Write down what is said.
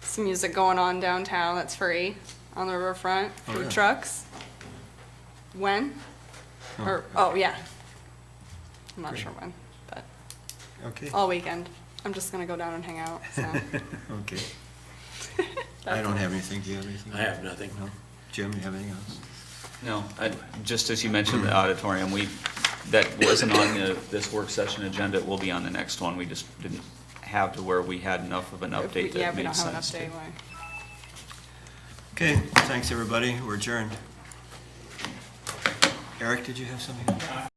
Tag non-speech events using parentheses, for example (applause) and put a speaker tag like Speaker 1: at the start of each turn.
Speaker 1: some music going on downtown that's free on the riverfront,
Speaker 2: Oh,
Speaker 1: food
Speaker 2: yeah.
Speaker 1: trucks. When? Or, oh, yeah. I'm not
Speaker 2: Great.
Speaker 1: sure when, but
Speaker 2: Okay, (laughs)
Speaker 1: all weekend. I'm just gonna go down and hang out, so.
Speaker 2: okay. I don't have anything, do you have anything?
Speaker 3: I have nothing.
Speaker 2: No? Jim, you have anything else?
Speaker 4: No, I- just as you mentioned the auditorium, we, that wasn't on the, this work session agenda, it will be on the next one. We just didn't have to where we had enough of an
Speaker 1: If we-
Speaker 4: update
Speaker 1: Yeah,
Speaker 4: that
Speaker 1: if we
Speaker 4: made
Speaker 1: don't have an
Speaker 4: sense. to-
Speaker 1: update, why?
Speaker 2: Okay, thanks, everybody, we're adjourned. Eric, did you have something?